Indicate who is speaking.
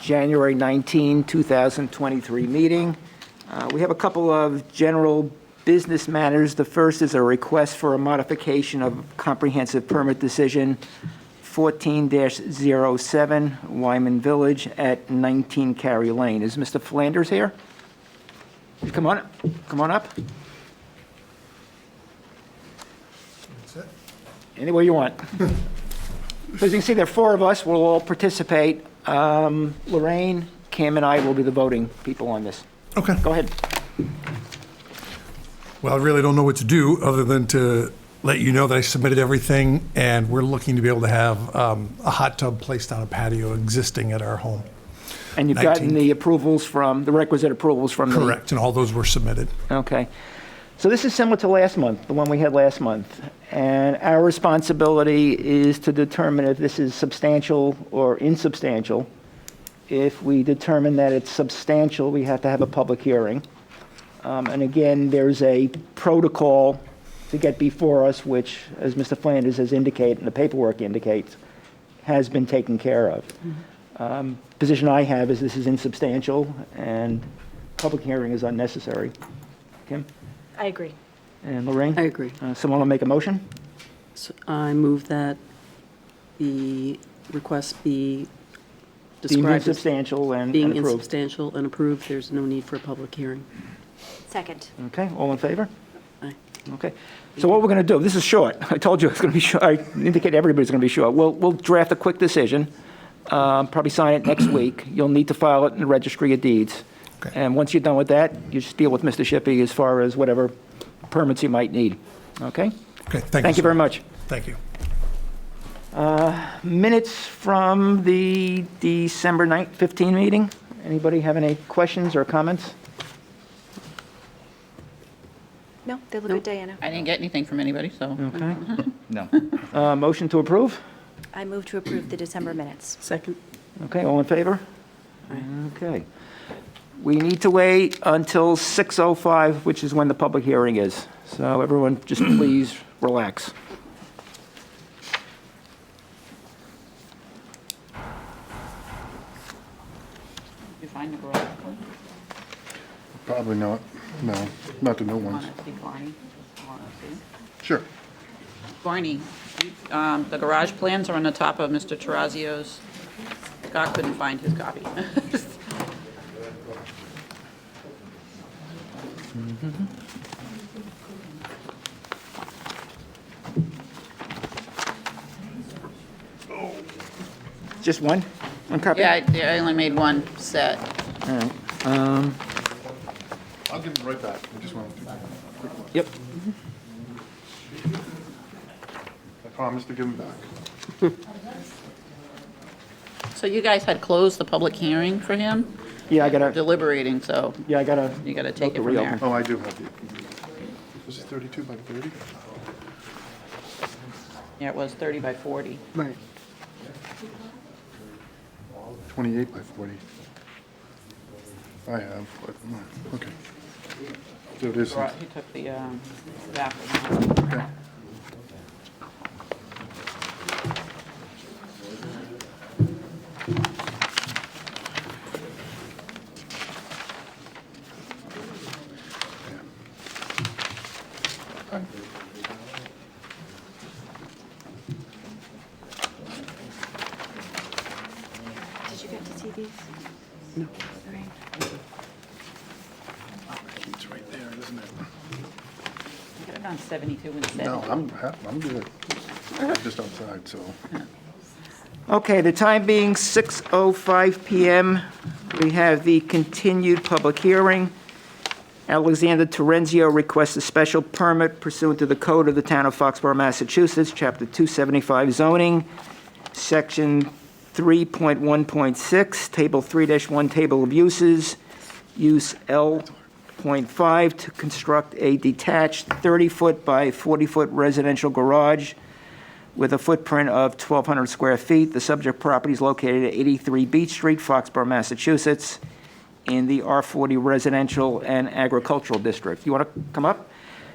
Speaker 1: January 19, 2023 meeting. Uh, We have a couple of general business matters. The first is a request for a modification of comprehensive permit decision 14-07 Wyman Village at 19 Cary Lane. Is Mr. Flanders here? Come on, come on up. Anywhere you want. So as you can see, there are four of us, we'll all participate. Um, Lorraine, Cam, and I will be the voting people on this.
Speaker 2: Okay.
Speaker 1: Go ahead.
Speaker 2: Well, I really don't know what to do other than to let you know that I submitted everything and we're looking to be able to have um, a hot tub placed on a patio existing at our home.
Speaker 1: And you've gotten
Speaker 2: 19th.
Speaker 1: the approvals from, the requisite approvals from the...
Speaker 2: Correct. And all those were submitted.
Speaker 1: Okay. So this is similar to last month, the one we had last month. And our responsibility is to determine if this is substantial or insubstantial. If we determine that it's substantial, we have to have a public hearing. Um, And again, there's a protocol to get before us, which, as Mr. Flanders has indicated, and the paperwork indicates, has been taken care of. Um, Position I have is this is insubstantial, and public hearing is unnecessary. Kim
Speaker 3: I agree.
Speaker 1: and Lorraine?
Speaker 4: I agree.
Speaker 1: Uh, Someone will make a motion?
Speaker 4: So I move that the request be
Speaker 1: Deemed
Speaker 4: described as
Speaker 1: insubstantial and
Speaker 4: being
Speaker 1: and approved.
Speaker 4: insubstantial and approved. There's no need for a public hearing.
Speaker 3: Second.
Speaker 1: Okay, all in favor?
Speaker 4: Aye.
Speaker 1: Okay. So what we're going to do, this is short. I told you it's going to be short. I indicated everybody's going to be short. We'll, we'll draft a quick decision, um, probably sign it next week. You'll need to file it in the registry of deeds.
Speaker 2: Okay.
Speaker 1: And once you're done with that, you just deal with Mr. Shippey as far as whatever permits he might need. Okay?
Speaker 2: Okay. Thank,
Speaker 1: Thank you very much.
Speaker 2: much. Thank you.
Speaker 1: Minutes from the December 9th, 15 meeting. Anybody have any questions or comments?
Speaker 3: No, they look good, Diana.
Speaker 5: I didn't get anything from anybody, so.
Speaker 1: Okay.
Speaker 6: No.
Speaker 1: Uh, Motion to approve?
Speaker 3: I move to approve the December minutes.
Speaker 4: Second?
Speaker 1: Okay, all in favor? Okay. We need to wait until 6:05, which is when the public hearing is. So everyone, just please relax.
Speaker 5: You find the garage one?
Speaker 7: Probably not, no, not the new ones.
Speaker 5: Wanna see Barney? Just wanna see.
Speaker 7: Sure.
Speaker 5: Barney, you- um, the garage plans are on the top of Mr. Terrazio's. Scott couldn't find his copy.
Speaker 1: Just one? One copy?
Speaker 5: Yeah, I- I only made one set.
Speaker 1: All right. Um,
Speaker 7: I'll give them right back, I just want to,
Speaker 1: Yep.
Speaker 7: I promise to give them back.
Speaker 5: So you guys had closed the public hearing for him,
Speaker 1: Yeah, I gotta,
Speaker 5: deliberating, so
Speaker 1: yeah, I gotta,
Speaker 5: you got to take it
Speaker 1: to
Speaker 5: from
Speaker 1: reopen.
Speaker 5: there.
Speaker 7: Oh, I do have the, this is 32 by 30?
Speaker 5: Yeah, it was 30 by 40.
Speaker 4: Right.
Speaker 7: 28 by 40. I have, but, mm, okay. So it is,
Speaker 5: Right, He took the um, back one.
Speaker 7: okay.
Speaker 3: Did you get to see these? No.
Speaker 7: It's right there, isn't it?
Speaker 5: Could have done 72 instead.
Speaker 7: No, I'm, ha- I'm good. Just outside, so.
Speaker 1: Okay, the time being 6:05 PM, we have the continued public hearing. Alexander Terenzio requests a special permit pursuant to the code of the town of Foxborough, Massachusetts, Chapter 275 zoning, Section 3.1.6, Table 3-1, Table of Uses, Use L.5, to construct a detached 30-foot by 40-foot residential garage with a footprint of 1,200 square feet. The subject property is located at 83 Beach Street, Foxborough, Massachusetts, in the R40 Residential and Agricultural District. You want to come up?